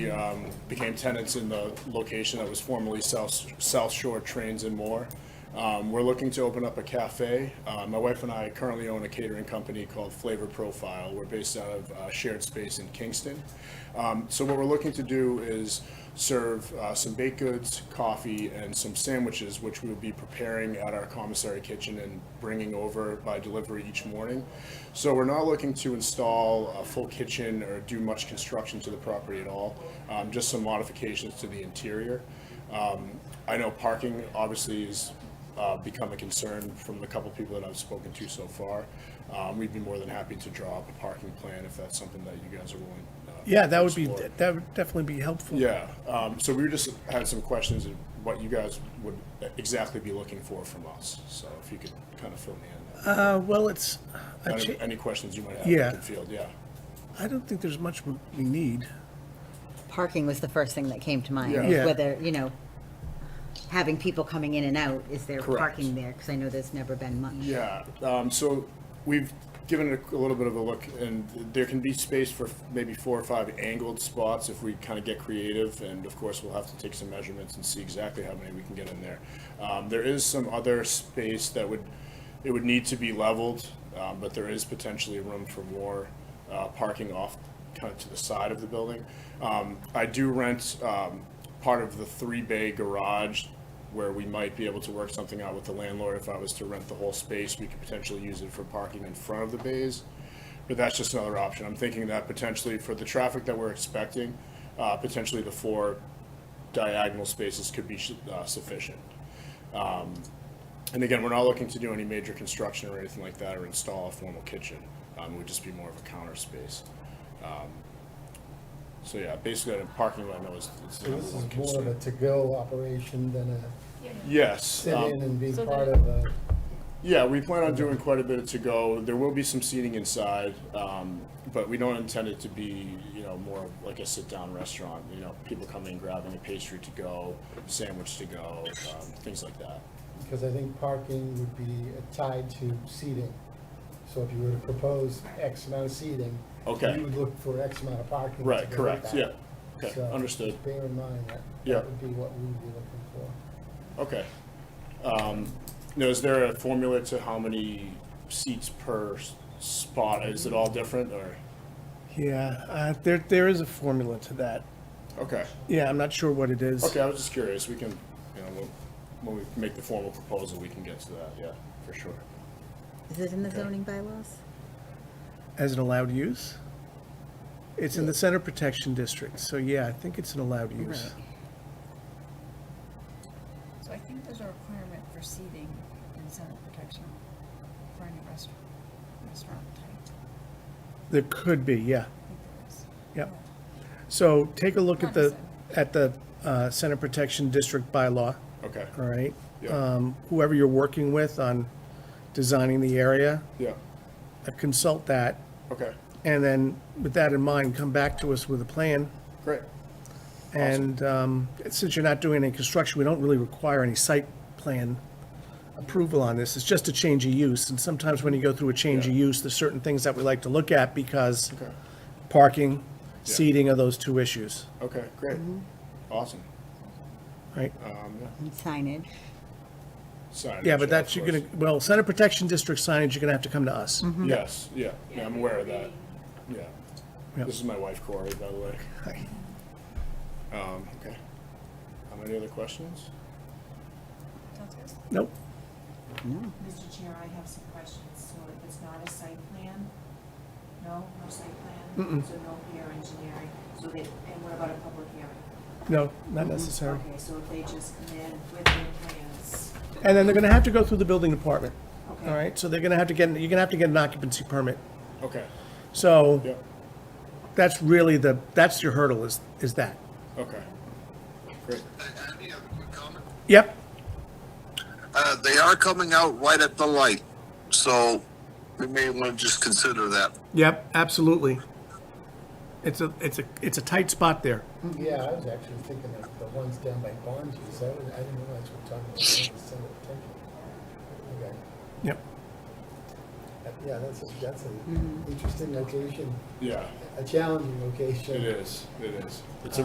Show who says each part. Speaker 1: um, became tenants in the location that was formerly South, South Shore Trains and More. Um, We're looking to open up a cafe. Uh, My wife and I currently own a catering company called Flavor Profile. We're based out of uh, shared space in Kingston. Um, So what we're looking to do is serve uh, some baked goods, coffee, and some sandwiches, which we'll be preparing at our commissary kitchen and bringing over by delivery each morning. So we're not looking to install a full kitchen or do much construction to the property at all, um, just some modifications to the interior. Um, I know parking obviously has uh, become a concern from the couple people that I've spoken to so far. Um, We'd be more than happy to draw up a parking plan if that's something that you guys are willing. uh,
Speaker 2: Yeah,
Speaker 1: to
Speaker 2: that would be,
Speaker 1: explore.
Speaker 2: that would definitely be helpful.
Speaker 1: Yeah, um, so we were just had some questions of what you guys would exactly be looking for from us, so if you could kind of fill me in. on
Speaker 2: Uh, well, it's, a
Speaker 1: Any,
Speaker 2: cha-
Speaker 1: any questions you might have
Speaker 2: Yeah.
Speaker 1: in the field, yeah.
Speaker 2: I don't think there's much we we need.
Speaker 3: parking was the first thing that came to mind.
Speaker 1: Yeah.
Speaker 3: is
Speaker 2: Yeah.
Speaker 3: Whether, you know, having people coming in and out, is there
Speaker 1: Correct.
Speaker 3: parking there? Because I know there's never been much.
Speaker 1: Yeah, um, so we've given it a little bit of a look, and there can be space for maybe four or five angled spots if we kind of get creative, and of course, we'll have to take some measurements and see exactly how many we can get in there. Um, there is some other space that would, it would need to be leveled, um, but there is potentially room for more, uh, parking off kind of to the side of the building. Um, I do rent, um, part of the three bay garage where we might be able to work something out with the landlord. If I was to rent the whole space, we could potentially use it for parking in front of the bays. But that's just another option. I'm thinking that potentially for the traffic that we're expecting, uh, potentially the four diagonal spaces could be su- uh, sufficient. Um, And again, we're not looking to do any major construction or anything like that or install a formal kitchen. Um, It would just be more of a counter space. Um, So yeah, basically, the parking lot, I know is is the
Speaker 4: So
Speaker 1: number
Speaker 4: This
Speaker 1: one
Speaker 4: is more
Speaker 1: concern.
Speaker 4: of a to-go operation than a
Speaker 1: Yes. um,
Speaker 4: sit-in and be
Speaker 5: So
Speaker 4: part
Speaker 5: that-
Speaker 4: of a,
Speaker 1: Yeah, we plan on doing quite a bit of to-go. There will be some seating inside, um, but we don't intend it to be, you know, more of like a sit-down restaurant. You know, people coming, grabbing a pastry to go, sandwich to go, um, things like that.
Speaker 4: because I think parking would be tied to seating. So if you were to propose X amount of seating,
Speaker 1: Okay.
Speaker 4: you would look for X amount of parking. to
Speaker 1: Right,
Speaker 4: go with
Speaker 1: correct,
Speaker 4: that.
Speaker 1: yeah. Okay,
Speaker 4: So
Speaker 1: understood.
Speaker 4: Bear in mind that
Speaker 1: Yeah.
Speaker 4: that would be what we would be looking for.
Speaker 1: Okay. Um, Now, is there a formula to how many seats per s- spot? Is it all different or?
Speaker 2: Yeah, uh, there, there is a formula to that.
Speaker 1: Okay,
Speaker 2: Yeah, I'm not sure what it is.
Speaker 1: okay, I was just curious. We can, you know, when- when we make the formal proposal, we can get to that, yeah, for sure.
Speaker 3: Is it in the zoning bylaws?
Speaker 2: As an allowed use? It's in the center protection district, so yeah, I think it's an allowed use.
Speaker 5: So I think there's a requirement for seating in center protection for any restaurant, restaurant type.
Speaker 2: There could be, yeah.
Speaker 5: I think there is.
Speaker 2: Yep. So take a look at the,
Speaker 5: Understood.
Speaker 2: at the uh, center protection district bylaw,
Speaker 1: Okay,
Speaker 2: all right?
Speaker 1: Yeah.
Speaker 2: Um, Whoever you're working with on designing the area, uh,
Speaker 1: yeah,
Speaker 2: consult that,
Speaker 1: okay,
Speaker 2: and then with that in mind, come back to us with a plan.
Speaker 1: great.
Speaker 2: And um, since you're not doing any construction, we don't really require any site plan approval on this. It's just a change of use. And sometimes when you go through a change of
Speaker 1: Yeah.
Speaker 2: use, there's certain things that we like to look at because
Speaker 1: Okay.
Speaker 2: parking, seating are those two issues,
Speaker 1: Okay, great. Awesome.
Speaker 2: right?
Speaker 1: Um, yeah.
Speaker 3: And signage?
Speaker 1: Signage,
Speaker 2: Yeah, but
Speaker 1: of
Speaker 2: that's, you're gonna, Mhm.
Speaker 1: course. Mm-hmm.
Speaker 2: well, center protection district signage, you're gonna have to come to us.
Speaker 1: Yes, yeah, yeah, I'm aware of that. Yeah.
Speaker 2: Yep.
Speaker 1: This is my wife Corey, by the way. Um, okay. Um, any other questions?
Speaker 5: Sounds good.
Speaker 2: Nope,
Speaker 3: No.
Speaker 6: Mr. Chair, I have some questions. So if it's not a site plan? No, no site plan? So no peer engineering? So they, and what about a public hearing?
Speaker 2: no, not necessary.
Speaker 6: Okay, so if they just come in with their plans,
Speaker 2: And then they're gonna have to go through the building department,
Speaker 6: okay?
Speaker 2: all right? So they're gonna have to get, you're gonna have to get an occupancy permit.
Speaker 1: Okay,
Speaker 2: So
Speaker 1: yep,
Speaker 2: that's really the, that's your hurdle is, is that.
Speaker 1: okay. Great,
Speaker 7: Andy, I have a quick comment.
Speaker 2: Yep,
Speaker 7: Uh, they are coming out right at the light, so we may want to just consider that.
Speaker 2: yep, absolutely. It's a, it's a, it's a tight spot there.
Speaker 4: Yeah, I was actually thinking of the ones down by Bonji's, I was- I didn't realize we're talking about the center protection. Okay.
Speaker 2: Yep.
Speaker 4: Uh, Yeah, that's, a- that's an interesting location,
Speaker 1: yeah,
Speaker 4: a challenging location.
Speaker 1: it is, it is. It's a